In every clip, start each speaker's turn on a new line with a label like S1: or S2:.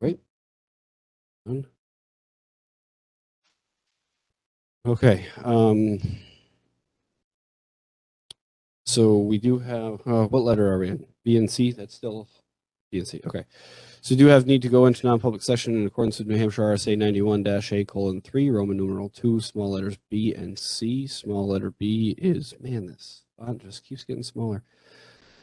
S1: Wait. One. Okay, um. So we do have, uh, what letter are we in? B and C, that's still B and C, okay. So we do have need to go into non-public session in accordance with New Hampshire RSA ninety-one dash A colon three, Roman numeral two, small letters B and C. Small letter B is, man, this font just keeps getting smaller.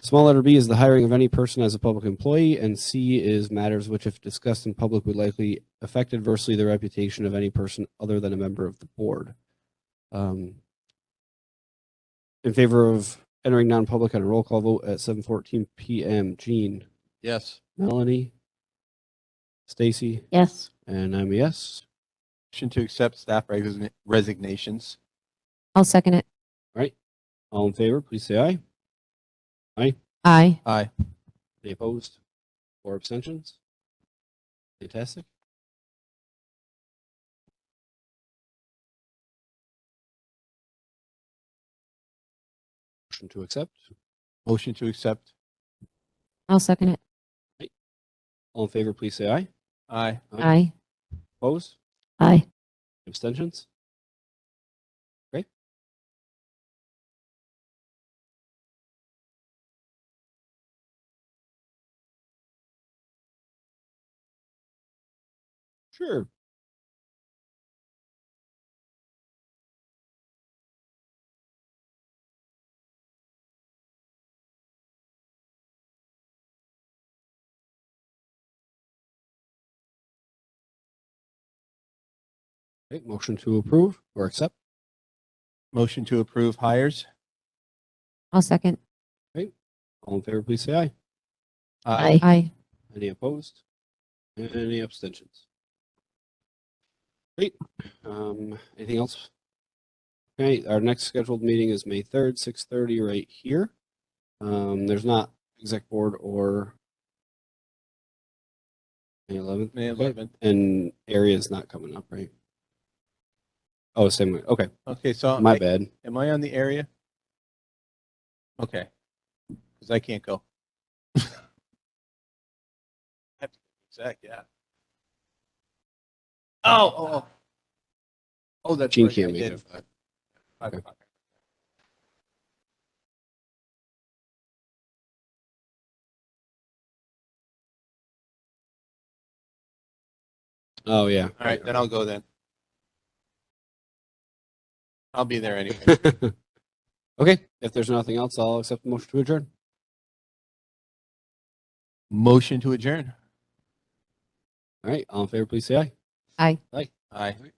S1: Small letter B is the hiring of any person as a public employee, and C is matters which, if discussed in public, would likely affect adversely the reputation of any person other than a member of the board. Um, In favor of entering non-public on a roll call vote at seven fourteen PM, Jean,
S2: Yes.
S1: Melanie, Stacy,
S3: Yes.
S1: and I'm a yes.
S2: Motion to accept staff resign- resignations.
S3: I'll second it.
S1: All in favor, please say aye.
S3: Aye.
S2: Aye.
S1: Any opposed or abstentions? Fantastic. Motion to accept.
S2: Motion to accept.
S3: I'll second it.
S1: All in favor, please say aye.
S2: Aye.
S3: Aye.
S1: Opposed?
S3: Aye.
S1: Abstentions? Great. Sure. Great. Motion to approve or accept.
S2: Motion to approve hires.
S3: I'll second.
S1: All in favor, please say aye.
S3: Aye.
S1: Any opposed? And Any abstentions? Great. Um, anything else? Okay, our next scheduled meeting is May third, six thirty, right here. Um, there's not exec board or May eleventh,
S2: May eleventh.
S1: and area is not coming up, right? Oh, same way. Okay,
S2: Okay, so
S1: my
S2: I-
S1: bad.
S2: am I on the area? Okay. Because I can't go. I have to go Exec, yeah. Oh, oh, oh. Oh, that's
S1: Gene
S2: right. I
S1: can't make
S2: did.
S1: it.
S2: Five
S1: Okay.
S2: o'clock.
S1: Oh, yeah.
S2: All right, then I'll go then. I'll be there anyway.
S1: Okay, if there's nothing else, I'll accept the motion to adjourn.
S2: Motion to adjourn.
S1: All right, all in favor, please say aye.
S3: Aye.
S2: Aye.